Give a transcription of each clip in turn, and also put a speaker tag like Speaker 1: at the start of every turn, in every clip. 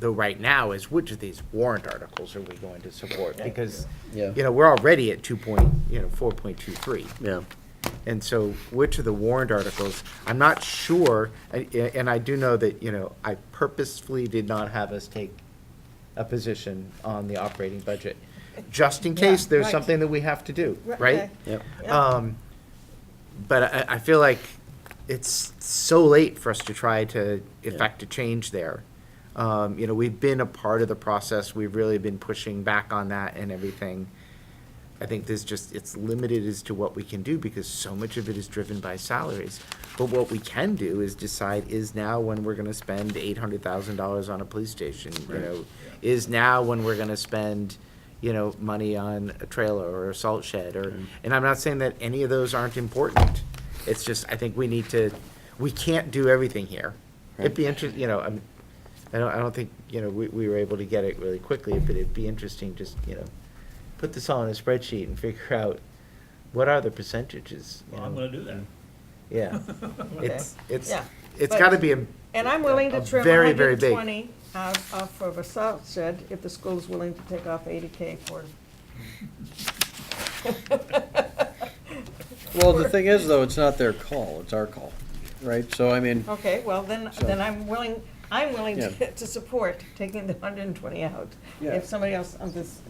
Speaker 1: though right now is which of these warrant articles are we going to support? Because,
Speaker 2: Yeah.
Speaker 1: you know, we're already at two point, you know, four point two three.
Speaker 2: Yeah.
Speaker 1: And so which of the warrant articles, I'm not sure, and, and I do know that, you know, I purposefully did not have us take a position on the operating budget, just in case
Speaker 3: Yeah,
Speaker 1: there's
Speaker 3: right.
Speaker 1: something that we have to do,
Speaker 3: Right,
Speaker 1: right?
Speaker 3: okay.
Speaker 2: Yep.
Speaker 1: Um, but I, I feel like it's so late for us to try to effect a change there. Um, you know, we've been a part of the process, we've really been pushing back on that and everything. I think there's just, it's limited as to what we can do because so much of it is driven by salaries. But what we can do is decide is now when we're gonna spend eight hundred thousand dollars on a police station, you know? Is now when we're gonna spend, you know, money on a trailer or a salt shed or, and I'm not saying that any of those aren't important. It's just, I think we need to, we can't do everything here. It'd be interesting, you know, I'm, I don't, I don't think, you know, we, we were able to get it really quickly, but it'd be interesting just, you know, put this all in a spreadsheet and figure out what are the percentages. you
Speaker 4: Well, I'm
Speaker 1: know?
Speaker 4: gonna do that.
Speaker 1: Yeah,
Speaker 3: Okay.
Speaker 1: it's, it's,
Speaker 3: Yeah.
Speaker 1: it's
Speaker 3: But-
Speaker 1: gotta be a.
Speaker 3: And I'm willing
Speaker 1: a
Speaker 3: to trim
Speaker 1: very, very
Speaker 3: hundred
Speaker 1: big-
Speaker 3: and twenty off off of a salt shed if the school's willing to take off eighty K for.
Speaker 2: Well, the thing is, though, it's not their call, it's our call, right? So, I mean,
Speaker 3: Okay, well, then,
Speaker 2: So-
Speaker 3: then I'm willing, I'm willing
Speaker 2: Yeah.
Speaker 3: to to support taking the hundred and twenty out.
Speaker 2: Yeah.
Speaker 3: If somebody else on this,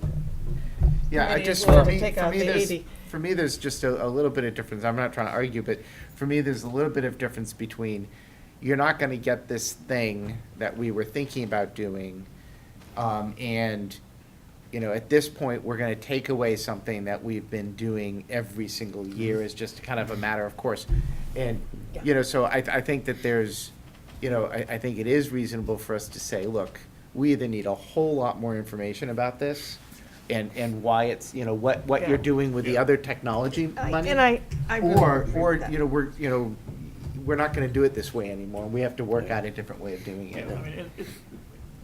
Speaker 1: Yeah, I
Speaker 3: Committee
Speaker 1: just,
Speaker 3: as
Speaker 1: for
Speaker 3: well to
Speaker 1: me,
Speaker 3: take
Speaker 1: for
Speaker 3: out
Speaker 1: me,
Speaker 3: the
Speaker 1: there's,
Speaker 3: 80.
Speaker 1: for me, there's just a, a little bit of difference, I'm not trying to argue, but for me, there's a little bit of difference between, you're not gonna get this thing that we were thinking about doing, um, and, you know, at this point, we're gonna take away something that we've been doing every single year, is just kind of a matter of course. And, you know, so I, I think that there's, you know, I, I think it is reasonable for us to say, look, we either need a whole lot more information about this, and, and why it's, you know, what, what you're
Speaker 3: Yeah.
Speaker 1: doing with the other technology money.
Speaker 3: and I, I really
Speaker 1: Or,
Speaker 3: agree with
Speaker 1: or,
Speaker 3: that.
Speaker 1: you know, we're, you know, we're not gonna do it this way anymore, we have to work out a different way of doing
Speaker 4: Yeah, I mean,
Speaker 1: it.
Speaker 4: it, it,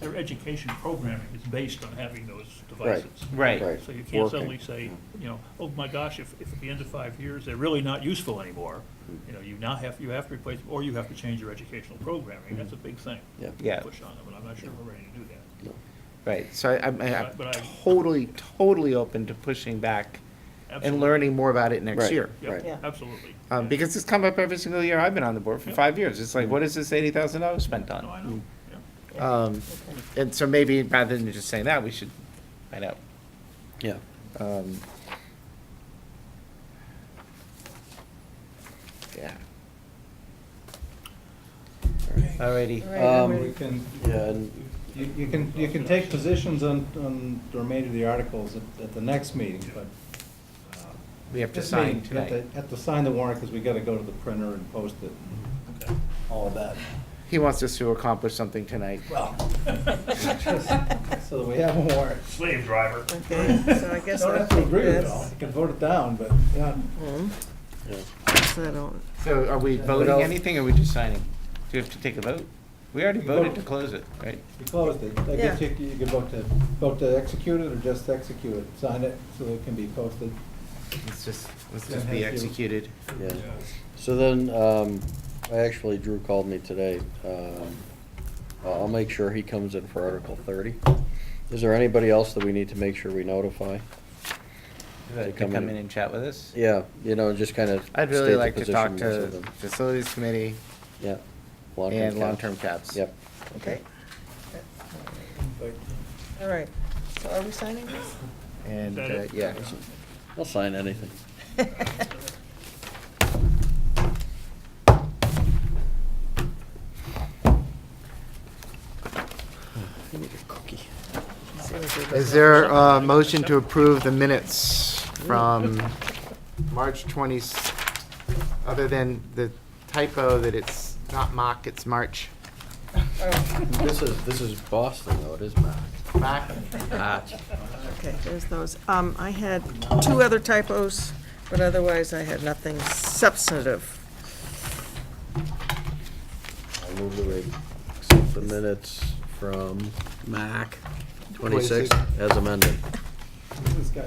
Speaker 4: their education programming is based on having those devices.
Speaker 1: Right.
Speaker 2: Right.
Speaker 4: So you can't
Speaker 2: Working.
Speaker 4: suddenly say, you know, oh my gosh, if, if at the end of five years, they're really not useful anymore,
Speaker 1: Mm-hmm.
Speaker 4: you know, you now have, you have to replace, or you have to change your educational programming, that's a big thing.
Speaker 2: Yeah.
Speaker 4: to
Speaker 1: Yeah.
Speaker 4: Push on them, and I'm not sure we're ready to do that.
Speaker 1: Right, so I- I'm, I'm
Speaker 4: But I-
Speaker 1: totally, totally open to pushing back and
Speaker 4: Absolutely.
Speaker 1: learning more about it next
Speaker 2: Right.
Speaker 1: year.
Speaker 2: Right.
Speaker 4: Yeah, absolutely.
Speaker 1: Um,
Speaker 4: Yeah.
Speaker 1: because it's come up every single year I've been on the board for five years, it's like, what is this eighty thousand dollars spent
Speaker 4: No,
Speaker 1: on?
Speaker 4: I know, yeah.
Speaker 1: Um, and so maybe rather than just saying that, we should find out.
Speaker 2: yeah.
Speaker 1: Um, Yeah. Alrighty.
Speaker 3: All right, I'm
Speaker 2: Um,
Speaker 3: ready.
Speaker 5: We can,
Speaker 2: Yeah, and
Speaker 5: you you can, you can take positions on, on the remainder of the articles at, at the next meeting, but. uh,
Speaker 1: We have to
Speaker 5: this meeting,
Speaker 1: sign
Speaker 5: you have to-
Speaker 1: tonight.
Speaker 5: Have to sign the warrant, because we gotta go to the printer and post it,
Speaker 4: Okay.
Speaker 5: all of that.
Speaker 1: He wants us to accomplish something tonight.
Speaker 5: Well.
Speaker 1: Mm.
Speaker 5: So that we have a warrant.
Speaker 4: Slave driver.
Speaker 3: Okay, so I guess
Speaker 5: Don't
Speaker 3: I
Speaker 5: have to
Speaker 3: think
Speaker 5: agree with it all,
Speaker 3: that's,
Speaker 5: you can vote it down, but, yeah.
Speaker 3: so I don't,
Speaker 1: So are we voting
Speaker 5: else?
Speaker 1: anything or are we just signing? Do you have to take a vote? We already
Speaker 5: We
Speaker 1: voted
Speaker 5: vote.
Speaker 1: to close it, right?
Speaker 5: You closed it, I guess you, you could vote to, vote to execute it or just execute it, sign it so that it can be posted.
Speaker 1: Let's just, let's
Speaker 5: Yeah,
Speaker 1: just be
Speaker 5: thank you.
Speaker 1: executed.
Speaker 2: Yeah. So then, um, I actually, Drew called me today. Um, I'll I'll make sure he comes in for Article thirty. Is there anybody else that we need to make sure we notify?
Speaker 1: To
Speaker 2: come
Speaker 1: come
Speaker 2: in.
Speaker 1: in and chat with us?
Speaker 2: Yeah, you know, just kind of.
Speaker 1: I'd
Speaker 2: state
Speaker 1: really
Speaker 2: the
Speaker 1: like to talk
Speaker 2: position
Speaker 1: to
Speaker 2: of them.
Speaker 1: facilities committee
Speaker 2: Yeah. Long-term
Speaker 1: and
Speaker 2: caps.
Speaker 1: long-term caps.
Speaker 2: Yep.
Speaker 3: okay,
Speaker 5: But
Speaker 3: all right. So are we signing this?
Speaker 1: And,
Speaker 4: That
Speaker 1: uh,
Speaker 4: it?
Speaker 1: yeah.
Speaker 2: I'll sign anything. Give me a cookie.
Speaker 1: Is there a motion to approve the minutes from March 20, other than the typo that it's not mock, it's March?
Speaker 3: Oh,
Speaker 2: This is, this is Boston, though, it is Mac.
Speaker 1: Mock?
Speaker 3: Okay, there's those. Um, I had two other typos, but otherwise I had nothing substantive.
Speaker 2: I move that we accept the minutes from Mac 26 as amended.
Speaker 5: This guy,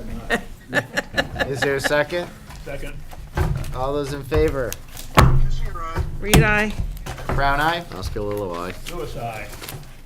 Speaker 5: not.
Speaker 1: Is there a second?
Speaker 4: Second.
Speaker 1: All those in favor?
Speaker 3: Read I.
Speaker 1: Brown eye?
Speaker 2: Oscar Lilo, aye.
Speaker 4: Suicide.